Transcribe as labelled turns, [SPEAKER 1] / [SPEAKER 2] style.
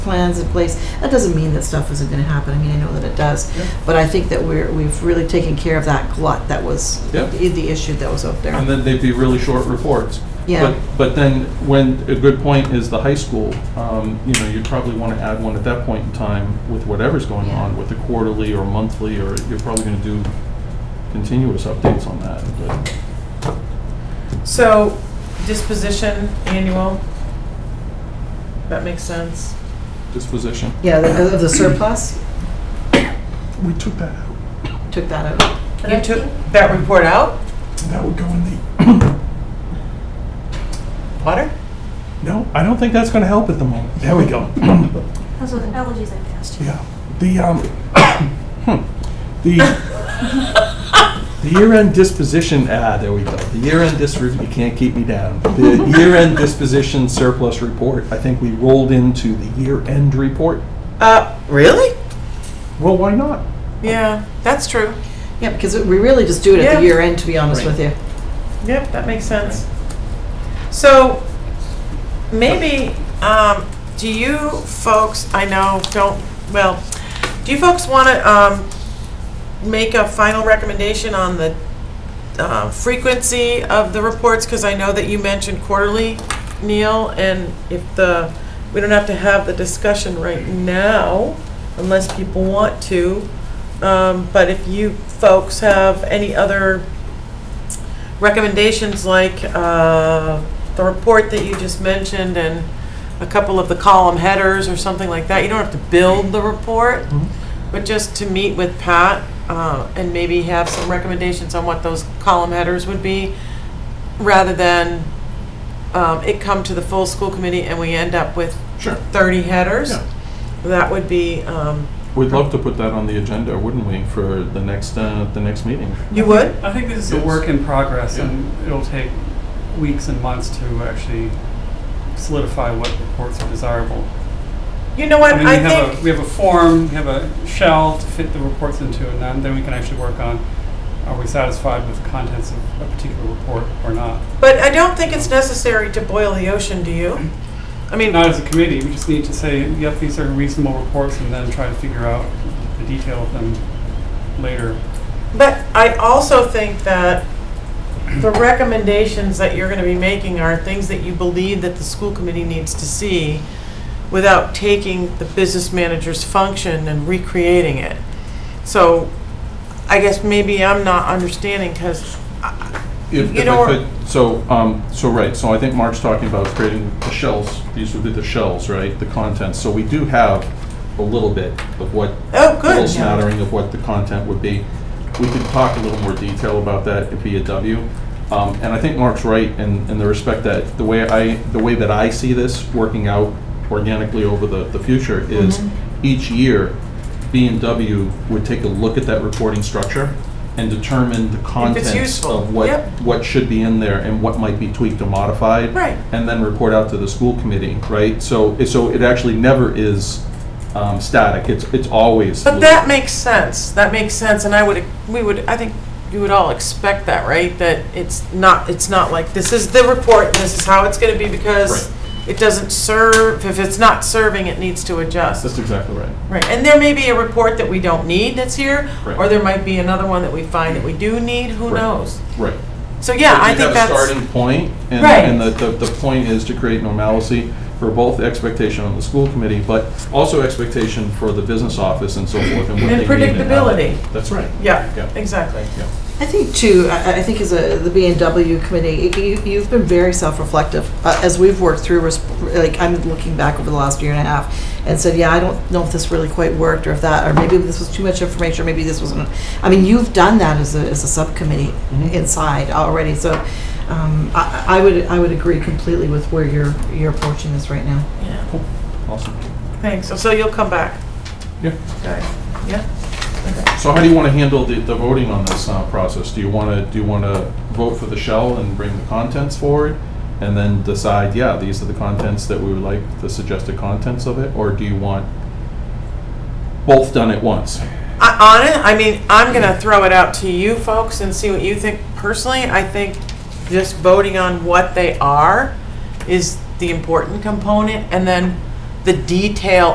[SPEAKER 1] plans in place. That doesn't mean that stuff isn't gonna happen, I mean, I know that it does.
[SPEAKER 2] Yeah.
[SPEAKER 1] But I think that we're, we've really taken care of that glut that was,
[SPEAKER 2] Yeah.
[SPEAKER 1] the the issue that was out
[SPEAKER 2] And
[SPEAKER 1] there.
[SPEAKER 2] then they'd be really short reports.
[SPEAKER 1] Yeah.
[SPEAKER 2] But, but then, when, a good point is the high school, um, you know, you'd probably want to add one at that point in time with whatever's going
[SPEAKER 1] Yeah.
[SPEAKER 2] on, with the quarterly or monthly, or you're probably going to do continuous updates on that. but-
[SPEAKER 3] So disposition annual, that makes sense.
[SPEAKER 2] Disposition.
[SPEAKER 1] Yeah, the, the surplus,
[SPEAKER 4] We took that out.
[SPEAKER 1] took that out.
[SPEAKER 3] You took that report out,
[SPEAKER 4] That would go in the,
[SPEAKER 3] Potter?
[SPEAKER 4] no,
[SPEAKER 2] I don't think that's going to help at the moment.
[SPEAKER 4] there we go.
[SPEAKER 5] Those are the allergies I passed you.
[SPEAKER 4] Yeah, the, um, hmm, the,
[SPEAKER 2] The year-end disposition, ah, there we go. The year-end dis, you can't keep me down. The year-end disposition surplus report, I think we rolled into the year-end report.
[SPEAKER 3] Uh, really?
[SPEAKER 2] Well, why not?
[SPEAKER 3] Yeah, that's true.
[SPEAKER 1] Yeah, because we really just do it at the
[SPEAKER 3] Yeah.
[SPEAKER 1] year end, to be honest
[SPEAKER 2] Right.
[SPEAKER 1] with you.
[SPEAKER 3] Yep, that makes sense. So maybe, um, do you folks, I know, don't, well, do you folks want to, um, make a final recommendation on the, uh, frequency of the reports? Because I know that you mentioned quarterly, Neil, and if the, we don't have to have the discussion right now unless people want to. Um, but if you folks have any other recommendations like uh, the report that you just mentioned and a couple of the column headers or something like that. You don't have to build the report,
[SPEAKER 2] Mhm.
[SPEAKER 6] Mm-hmm.
[SPEAKER 3] but just to meet with Pat uh, and maybe have some recommendations on what those column headers would be, rather than um, it come to the full school committee and we end up with
[SPEAKER 2] Sure.
[SPEAKER 3] 30 headers.
[SPEAKER 2] Yeah.
[SPEAKER 3] That would be, um,
[SPEAKER 2] We'd love to put that on the agenda, wouldn't we, for the next, uh, the next meeting?
[SPEAKER 6] Mm-hmm.
[SPEAKER 3] you would?
[SPEAKER 6] I think this is a
[SPEAKER 2] Yes.
[SPEAKER 6] work in progress,
[SPEAKER 2] Yeah.
[SPEAKER 6] and it'll take weeks and months to actually solidify what reports are desirable.
[SPEAKER 3] You know what,
[SPEAKER 6] mean,
[SPEAKER 3] I
[SPEAKER 6] we have a,
[SPEAKER 3] think,
[SPEAKER 6] we have a form, we have a shell to fit the reports into, and then, then we can actually work on are we satisfied with the contents of a particular report or not?
[SPEAKER 3] but I don't think it's necessary to boil the ocean, do you? I mean,
[SPEAKER 6] Not as a committee, we just need to say, yep, these are reasonable reports, and then try to figure out the detail of them later.
[SPEAKER 3] But I also think that the recommendations that you're gonna be making are things that you believe that the school committee needs to see without taking the business manager's function and recreating it. So I guess maybe I'm not understanding, because,
[SPEAKER 2] If,
[SPEAKER 3] You
[SPEAKER 2] if
[SPEAKER 3] know,
[SPEAKER 2] I could, so, um, so, right, so I think Mark's talking about creating the shells, these would be the shells, right, the contents. So we do have a little bit of what,
[SPEAKER 3] oh,
[SPEAKER 2] a little
[SPEAKER 3] good.
[SPEAKER 2] smattering of what the content would be. We could talk a little more detail about that if via W. Um, and I think Mark's right in, in the respect that the way I, the way that I see this working out organically over the, the future is
[SPEAKER 3] Mm-hmm.
[SPEAKER 2] each year, B and W would take a look at that reporting structure and determine the contents
[SPEAKER 3] useful,
[SPEAKER 2] of what,
[SPEAKER 3] yep.
[SPEAKER 2] what should be in there and what might be tweaked or modified.
[SPEAKER 3] Right.
[SPEAKER 2] And then report out to the school committee, right? So, so it actually never is um, static, it's, it's always.
[SPEAKER 3] But that makes sense, that makes sense, and I would, we would, I think you would all expect that, right? That it's not, it's not like, this is the report, and this is how it's gonna be, because
[SPEAKER 2] Right.
[SPEAKER 3] it doesn't serve, if it's not serving, it needs to
[SPEAKER 2] That's
[SPEAKER 3] adjust.
[SPEAKER 2] exactly right.
[SPEAKER 3] Right, and there may be a report that we don't need that's here, or
[SPEAKER 2] Right.
[SPEAKER 3] there might be another one that we find that we do need, who
[SPEAKER 2] Right.
[SPEAKER 3] knows?
[SPEAKER 2] Right.
[SPEAKER 3] So, yeah, I think
[SPEAKER 2] You have a
[SPEAKER 3] that's,
[SPEAKER 2] starting point, and,
[SPEAKER 3] Right.
[SPEAKER 2] and the, the, the point is to create normalcy for both expectation on the school committee, but also expectation for the business office and so forth, and what they
[SPEAKER 3] And
[SPEAKER 2] need how-
[SPEAKER 3] predictability.
[SPEAKER 2] That's right. Yeah.
[SPEAKER 3] yeah, exactly.
[SPEAKER 1] I think too, I, I think as a, the B and W committee, you, you've been very self-reflective. Uh, As we've worked through, res- like, I'm looking back over the last year and a half and said, yeah, I don't know if this really quite worked or if that, or maybe this was too much information, or maybe this wasn't. I mean, you've done that as a, as a subcommittee
[SPEAKER 2] Mhm.
[SPEAKER 1] inside already, so, um, I, I would, I would agree completely with where you're, you're approaching this right now.
[SPEAKER 3] Yeah,
[SPEAKER 2] Awesome.
[SPEAKER 3] thanks, so so you'll come back,
[SPEAKER 2] Yeah.
[SPEAKER 3] okay, yeah?
[SPEAKER 2] So how do you want to handle the, the voting on this uh, process? Do you want to, do you want to vote for the shell and bring the contents forward? And then decide, yeah, these are the contents that we would like, the suggested contents of it? Or do you want both done at once?
[SPEAKER 3] I, on it, I mean, I'm gonna throw it out to you folks and see what you think. Personally, I think just voting on what they are is the important component, and then the detail